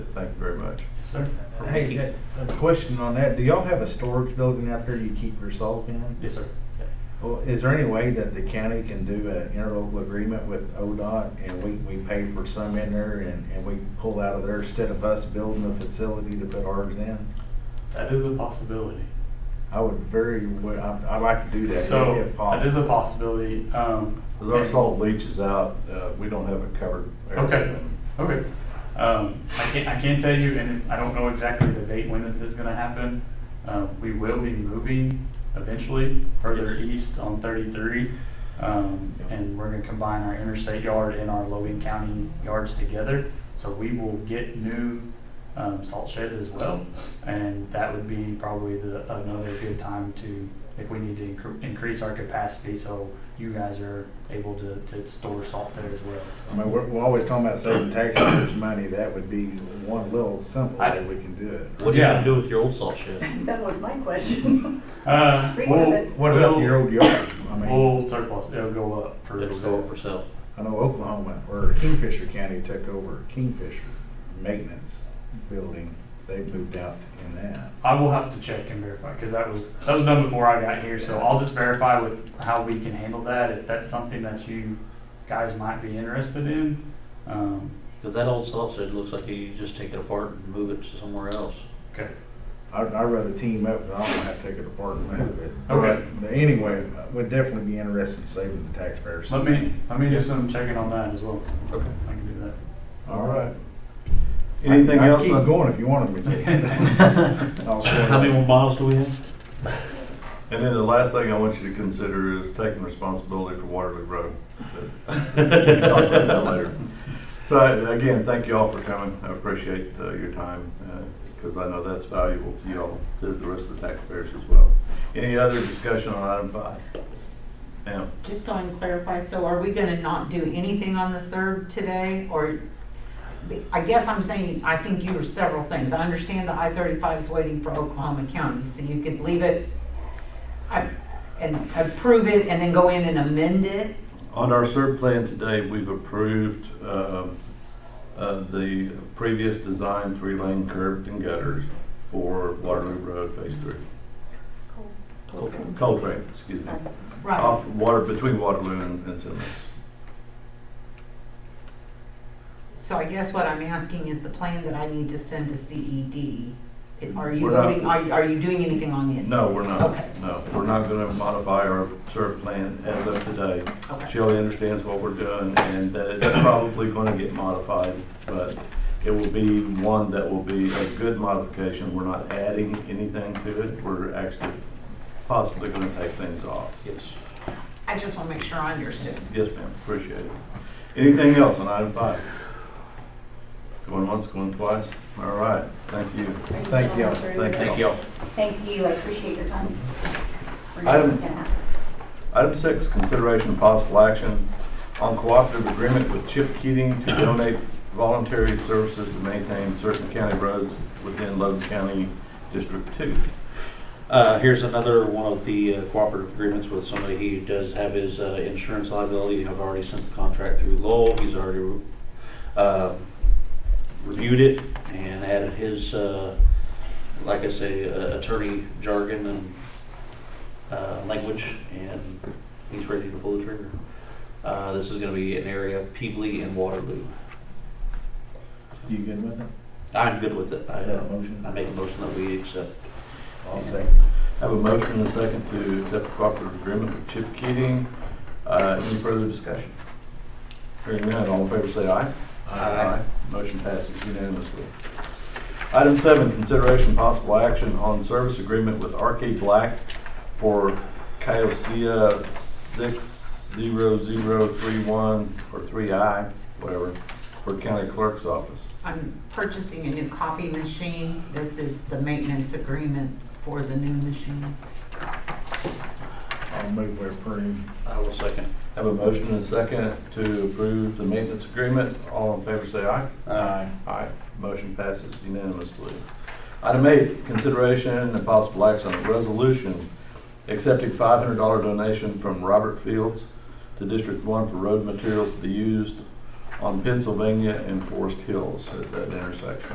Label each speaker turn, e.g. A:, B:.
A: Thank you very much.
B: Sir,
A: For
B: hey,
A: Mickey.
B: that- a question on that, do y'all have a storage building out there you keep your salt in?
C: Yes, sir.
B: Well, is there any way that the county can do an interlocal agreement with ODOT and we, we pay for some in there and, and we pull out of there instead of us building the facility to put ours in?
C: That is a possibility.
B: I would very, wa- I- I'd like to do that
C: So,
B: if- if
C: that is a
B: possible.
C: possibility, um.
A: As our
C: and-
A: salt leaches out, uh, we don't have it covered.
C: Okay, okay. Um, I can't, I can tell you, and I don't know exactly the date when this is gonna happen. Uh, we will be moving eventually further
A: Yes.
C: east on thirty-three. Um, and we're gonna combine our interstate yard and our Logan County yards together. So we will get new, um, salt sheds as well. And that would be probably the, another good time to, if we need to incre- increase our capacity, so you guys are able to, to store salt there as well.
B: I mean, we're, we're always talking about saving taxpayers money, that would be one little simple
C: I-
B: way we can do it.
D: What are you
C: Yeah.
D: gonna do with your old salt shed?
E: That was my question.
C: Uh, we'll,
E: Reimbursement.
B: What about your old yard? I mean,
C: We'll surplus, it'll go up for.
D: It'll go up for sale.
B: I know Oklahoma, or Kingfisher County took over Kingfisher Maintenance Building, they moved out in that.
C: I will have to check and verify, because that was, that was done before I got here, so I'll just verify with how we can handle that, if that's something that you guys might be interested in. Um,
D: Cause that old salt shed looks like you just take it apart and move it to somewhere else.
C: okay,
B: I'd, I'd rather team up, but I don't have to take it apart and move it.
C: Okay.
B: But anyway, I would definitely be interested in saving the taxpayers.
C: let me, let me do some checking on that as well.
D: Okay.
C: I can do that.
B: All right.
A: Anything
B: I- I
A: else?
B: Keep going if you want me to. I'll shut
D: How many
B: up.
D: more miles do we have?
A: And then the last thing I want you to consider is taking responsibility for Waterloo Road. But we can Talk about that later. So I- again, thank you all for coming. I appreciate uh, your time, because I know that's valuable to you all, to the rest of the taxpayers as well. Any other discussion on item five? Ma'am?
F: Just so I can clarify, so are we gonna not do anything on the CERB today, or, I guess I'm saying, I think you were several things. I understand the I-35 is waiting for Oklahoma County, so you could leave it, I- and approve it, and then go in and amend it?
A: On our SERB plan today, we've approved um, uh, the previous design, three-lane curved and gutters for Waterloo Road Phase Three.
D: Coltrane.
A: Coltrane, excuse me.
F: Right,
A: Off water, between Waterloo and and Simmons.
F: so I guess what I'm asking is the plan that I need to send to CED, are you
A: We're not-
F: voting, are are you doing anything on it?
A: No, we're not,
F: Okay.
A: no, we're not going to modify our SERB plan as of today.
F: Okay.
A: Shelley understands what we're doing and that it's probably going to get modified, but it will be one that will be a good modification. We're not adding anything to it. We're actually possibly going to take things off.
D: Yes.
F: I just wanna make sure I understood.
A: Yes, ma'am, appreciate it. Anything else on item five? Going once, going twice? All right, thank you.
B: Thank you.
A: Thank
D: Thank y'all.
E: Thank you, I appreciate your time. We're
A: Item-
E: just gonna-
A: Item six, consideration and possible action on cooperative agreement with Chip Keating to donate voluntary services to maintain certain county roads within Logan County District Two.
D: Uh, here's another one of the uh, cooperative agreements with somebody. He does have his uh, insurance liability. I've already sent the contract through Lowell. He's already uh, reviewed it and added his, uh, like I say, uh, attorney jargon and uh, language, and he's ready to pull the trigger. Uh, This is going to be an area of Peebly and Waterloo.
B: You good with it?
D: I'm good with it. I
B: Is that a motion?
D: I make a motion that we accept.
B: I'll second.
A: I Have a motion and a second to accept the cooperative agreement with Chip Keating. Uh, Any further discussion? Hearing none, all in favor say aye.
D: Aye.
A: Motion passes unanimously. Item seven, consideration possible action on service agreement with RK Black for Kiosia six zero zero three one or three I, whatever, for county clerk's office.
F: I'm purchasing a new copy machine. This is the maintenance agreement for the new machine.
B: I'll move where approved.
D: I will second.
A: Have a motion and a second to approve the maintenance agreement. All in favor say aye.
D: Aye.
A: Aye. Motion passes unanimously. Item eight, consideration and possible action on a resolution accepting five hundred dollar donation from Robert Fields to District One for road materials to be used on Pennsylvania and Forest Hills at that intersection.